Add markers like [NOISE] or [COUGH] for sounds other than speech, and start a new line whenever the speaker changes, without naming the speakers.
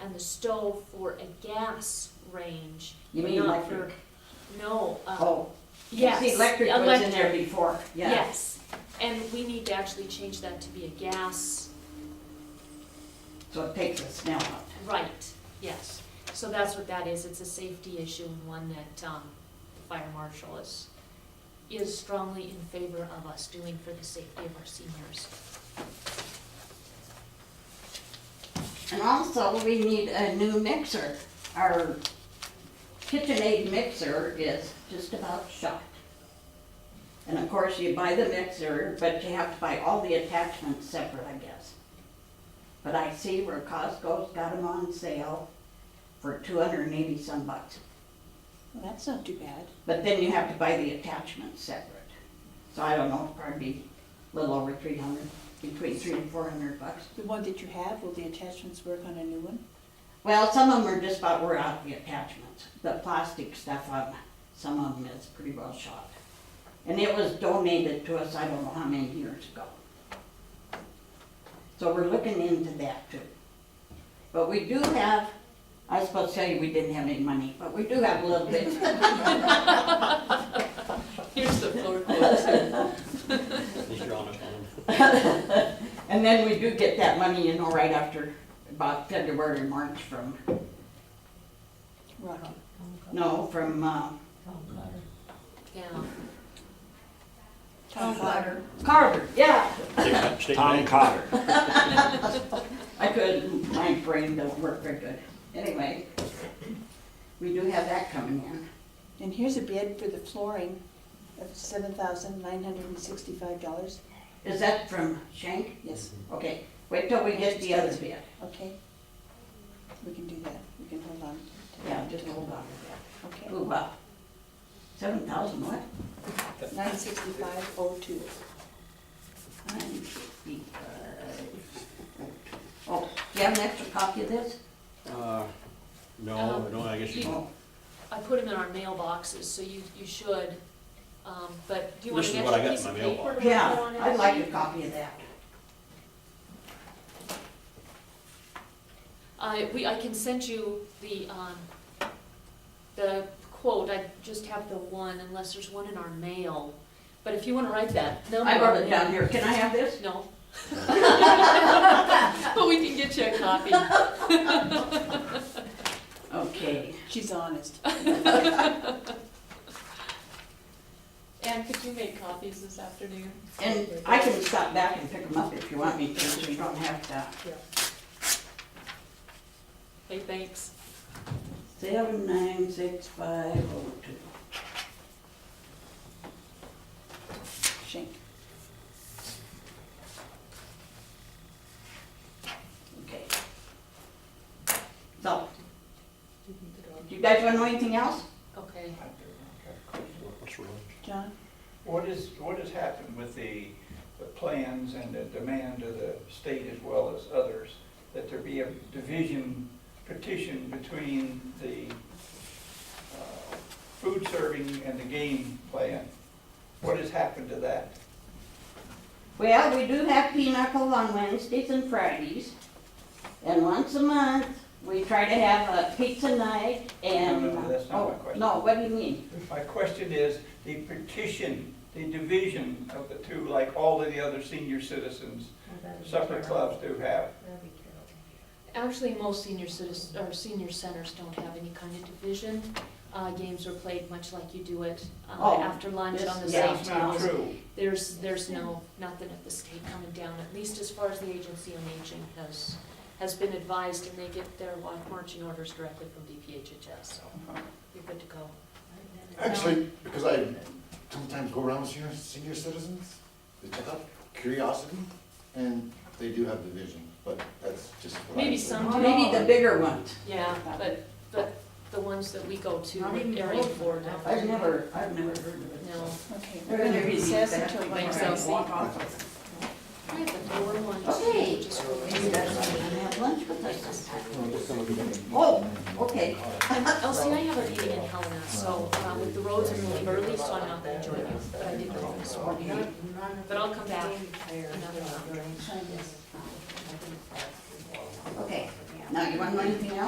and the stove for a gas range.
You mean
not
electric?
for- No, uh,
Oh,
yes.
see, electric was in there
electric,
before, yeah.
Yes, and we need to actually change that to be a gas,
So it takes us now out.
right, yes. So that's what that is, it's a safety issue and one that, um, the fire marshal is, is strongly in favor of us doing for the safety of our seniors.
And also, we need a new mixer. Our KitchenAid mixer is just about shot. And of course, you buy the mixer, but you have to buy all the attachments separate, I guess. But I see where Costco's got them on sale for two hundred and eighty some bucks.
Well, that's not too bad.
But then you have to buy the attachments separate. So I don't know, probably a little over three hundred, between three and four hundred bucks.
The one that you have, will the attachments work on a new one?
Well, some of them are just about wore out, the attachments. The plastic stuff on some of them is pretty well shot. And it was donated to us, I don't know how many years ago. So we're looking into that too. But we do have, I was supposed to tell you we didn't have any money, but we do have a little bit.
Here's the floor quote.
Is your honor fund?
And then we do get that money, you know, right after about February, March from,
Rocky.
no, from, uh,
Yeah.
Tom Potter.
Carter, yeah.
Tom Cotter.
I could, my brain don't work very good. Anyway, we do have that coming in.
And here's a bid for the flooring of seven thousand nine hundred and sixty-five dollars.
Is that from Shank?
Yes,
Okay, wait till we get the other bid.
okay. We can do that. We can hold on. to
Yeah,
that.
just hold on to that.
Okay.
Ooh, wow. Seven thousand what?
Nine sixty-five oh two.
Nine fifty. Oh, do you have an extra copy of this?
Uh, No, I don't, I guess you don't.
Oh,
I put them in our mailboxes, so you, you should, um, but do you wanna
This
get your
is what I got
piece
in
of
my
paper?
mailbox.
and put
Yeah,
on it?
I'd like a copy of that.
I, Uh, we, I can send you the, um, the quote, I just have the one, unless there's one in our mail, but if you wanna write that number.
I wrote it
down.
down here. Can I have this? [LAUGHS]
No. But we can get you a copy.
Okay.
She's honest.
Anne, could you make copies this afternoon?
And I can stop back and pick them up if you want me to, so you don't have to.
Hey, thanks.
Seven nine six five oh two.
Shank.
Okay. So, do you guys wanna know anything else?
Okay,
What's wrong?
John?
What is, what has happened with the, the plans and the demand of the state as well as others, that there be a division petition between the uh, food serving and the game plan? What has happened to that?
Well, we do have pinochle on Wednesdays and Fridays. And once a month, we try to have a pizza night and.
No, no, that's not my question.
Oh, No, what do you mean?
My question is, the petition, the division of the two, like all of the other senior citizens, supper clubs do have.
actually, most senior citizens, or senior centers don't have any kind of division. Uh, games are played much like you do it, uh,
Oh,
after lunch
this-
on the
yeah.
same
That's
table.
not true.
There's, there's no, nothing at the state coming down, at least as far as the agency on aging has, has been advised, and they get their wa- marching orders directly from DPHHS, so you're good to go.
Actually, because I sometimes go around with senior, senior citizens, they check out curiosity, and they do have division, but that's just what I.
Maybe
observe.
some do.
Maybe the bigger ones.
Yeah, but, but the ones that we go to, area four now.
I've never, I've never heard of it.
No,
Okay,
They're
we're
gonna
gonna
be
recess
back
until
before I
one
Excelsior.
o'clock.
walk off.
I had the lower ones.
Okay.
just-
You guys wanna have lunch with us?
No, just some of the-
Oh, okay.
Elsie, I have a meeting in Helena, so, uh, with the roads, I'm really early, so I'm not gonna join you, but I did call this morning. But I'll come back another time.
Okay. yeah. Now, you want to know anything else?